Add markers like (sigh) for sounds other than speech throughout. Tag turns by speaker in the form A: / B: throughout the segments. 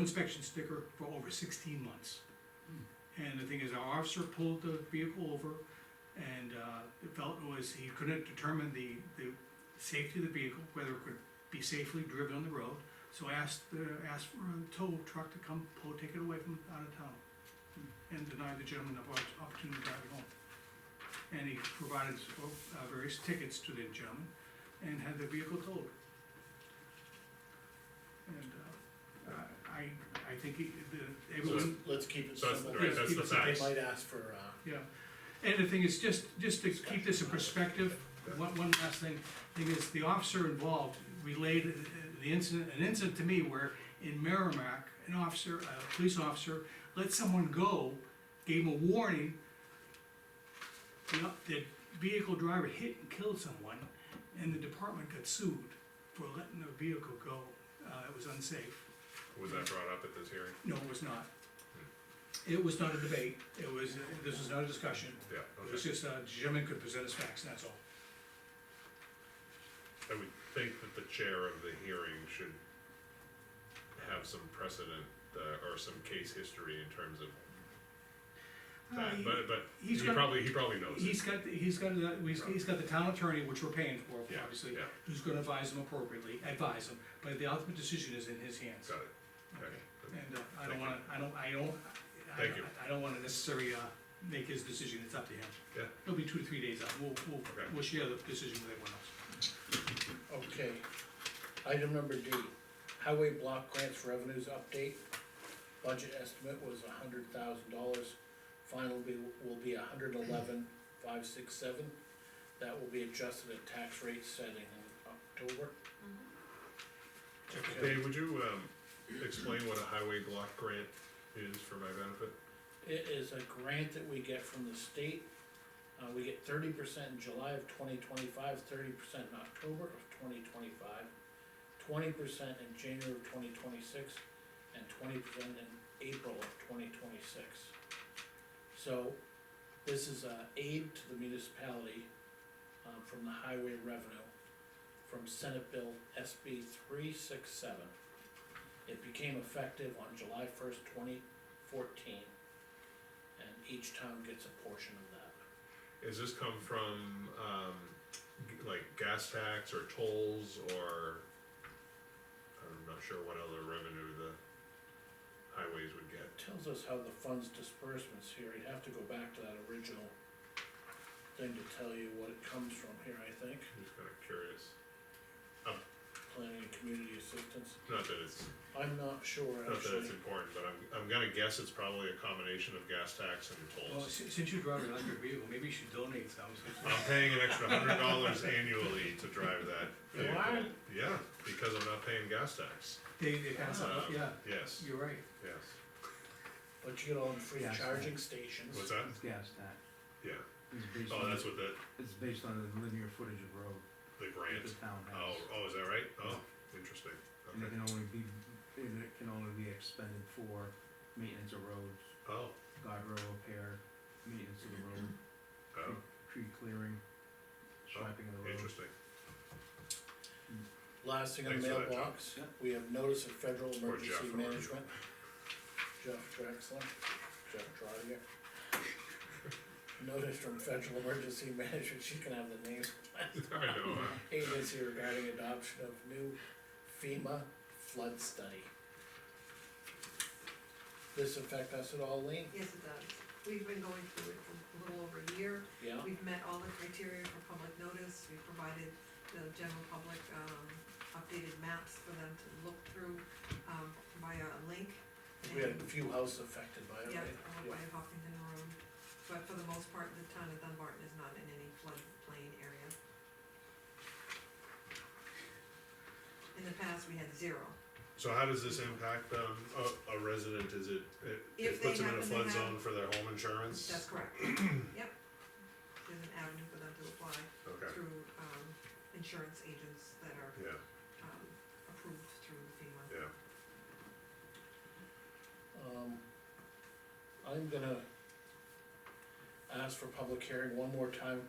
A: inspection sticker for over sixteen months. And the thing is, our officer pulled the vehicle over and, uh, it felt was, he couldn't determine the, the safety of the vehicle, whether it could be safely driven on the road. So asked, uh, asked for a tow truck to come pull, take it away from out of town and denied the gentleman the oppor- opportunity to drive it home. And he provided uh, various tickets to the gentleman and had the vehicle towed. And uh, I, I think he, the, everyone,
B: Let's keep it
C: So that's,
B: simple.
C: right, that's the
B: They
C: facts.
B: might ask for, uh,
A: yeah. And the thing is, just, just to keep this in perspective, one, one last thing, thing is, the officer involved relayed uh, the incident, an incident to me where in Merrimack, an officer, a police officer, let someone go, gave him a warning. The, the vehicle driver hit and killed someone, and the department got sued for letting the vehicle go, uh, it was unsafe.
C: Was that brought up at this hearing?
A: No, it was not. It was not a debate, it was, this was not a discussion.
C: Yeah,
A: It was
C: okay.
A: just, uh, gentleman could present his facts, and that's all.
C: I would think that the chair of the hearing should have some precedent, uh, or some case history in terms of
A: Uh, he-
C: that, but, but he
A: he's got-
C: probably, he probably knows it.
A: He's got, the- he's got, the- he's, he's got the town attorney, which we're paying for,
C: Yeah,
A: obviously,
C: yeah.
A: who's gonna advise him appropriately, advise him, but the ultimate decision is in his hands.
C: Got it, okay.
A: And, uh, I
C: Thank
A: don't
C: you.
A: wanna, I don't, I don't, I
C: Thank
A: don't,
C: you.
A: I don't wanna necessarily, uh, make his decision, it's up to him.
C: Yeah.
A: It'll be two to three days out, we'll, we'll,
C: Okay.
A: we'll share the decision with everyone else.
B: okay. Item number D, highway block grants revenues update. Budget estimate was a hundred thousand dollars, final be, will be a hundred eleven, five, six, seven. That will be adjusted at tax rate setting in October. Okay.
C: Dave, would you, um, explain what a highway block grant is for my benefit?
B: It is a grant that we get from the state. Uh, we get thirty percent in July of twenty twenty-five, thirty percent in October of twenty twenty-five, twenty percent in January of twenty twenty-six, and twenty percent in April of twenty twenty-six. So, this is a aid to the municipality, um, from the highway revenue, from Senate Bill SB three six seven. It became effective on July first, twenty fourteen and each town gets a portion of that.
C: Has this come from, um, g- like gas tax or tolls or, I'm not sure what other revenue the highways would get.
B: It tells us how the funds disbursements here, you'd have to go back to that original thing to tell you what it comes from here, I think,
C: I'm just kinda curious,
B: planning and community assistance.
C: not that it's,
B: I'm not sure
C: not that it's
B: actually,
C: important, but I'm, I'm gonna guess it's probably a combination of gas tax and
A: Well,
C: tolls.
A: si- since you drive an electric vehicle, maybe you should donate
C: (laughs)
A: some.
C: I'm paying an extra hundred dollars annually to drive that
B: You
C: vehicle.
B: are?
C: Yeah, because I'm not paying gas tax,
A: They, they pass it out,
C: Um,
A: yeah,
C: yes,
A: you're right.
C: yes,
B: but you get all the free
D: Yeah, it's
B: charging stations.
C: what's that?
D: It's gas tax,
C: Yeah,
D: it's based
C: oh,
D: on,
C: that's what the,
D: it's based on the linear footage of road
C: the
D: that
C: grant,
D: the town
C: oh,
D: has.
C: oh, is that right? Oh, interesting,
D: And it
C: okay,
D: can only be, and it can only be expended for maintenance of roads,
C: oh,
D: guardrail repair, maintenance of the road,
C: oh,
D: tree clearing, striping of the road.
E: (laughs)
C: interesting,
B: Last thing in
C: Thanks
B: the
C: for that, Jeff.
B: mailbox,
D: Yeah.
B: we have notice of federal
C: Or Jeff,
B: emergency
C: or-
B: management. Jeff Drexler, Jeff Dryer. Notice from federal emergency (laughs) management, she can have the name.
C: I know, uh,
B: agency regarding adoption of new FEMA flood study. This affect us at all, Lean?
E: Yes, it does. We've been going through it for a little over a year.
B: Yeah,
E: We've met all the criteria for public notice. We provided the general public, um, updated maps for them to look through, um, via a link.
B: we had
E: and-
B: a few houses affected by it,
E: Yeah,
B: right?
E: all by Hopkinton Road. But for the most part, the town of Dunbarton is not in any floodplain area. In the past, we had zero.
C: so how does this impact, um, a, a resident, is it, it- it
E: If they
C: puts them in a
E: happen to
C: flood
E: have-
C: zone for their home insurance?
E: That's
B: (clears throat)
E: correct. Yep. There's an avenue for them to apply.
C: Okay,
E: through, um, insurance agents that are,
C: yeah.
E: um, approved through FEMA.
C: Yeah,
B: Um, I'm gonna ask for public hearing one more time,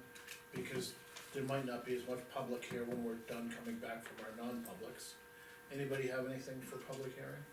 B: because there might not be as much public here when we're done coming back from our non-publics. Anybody have anything for public hearing?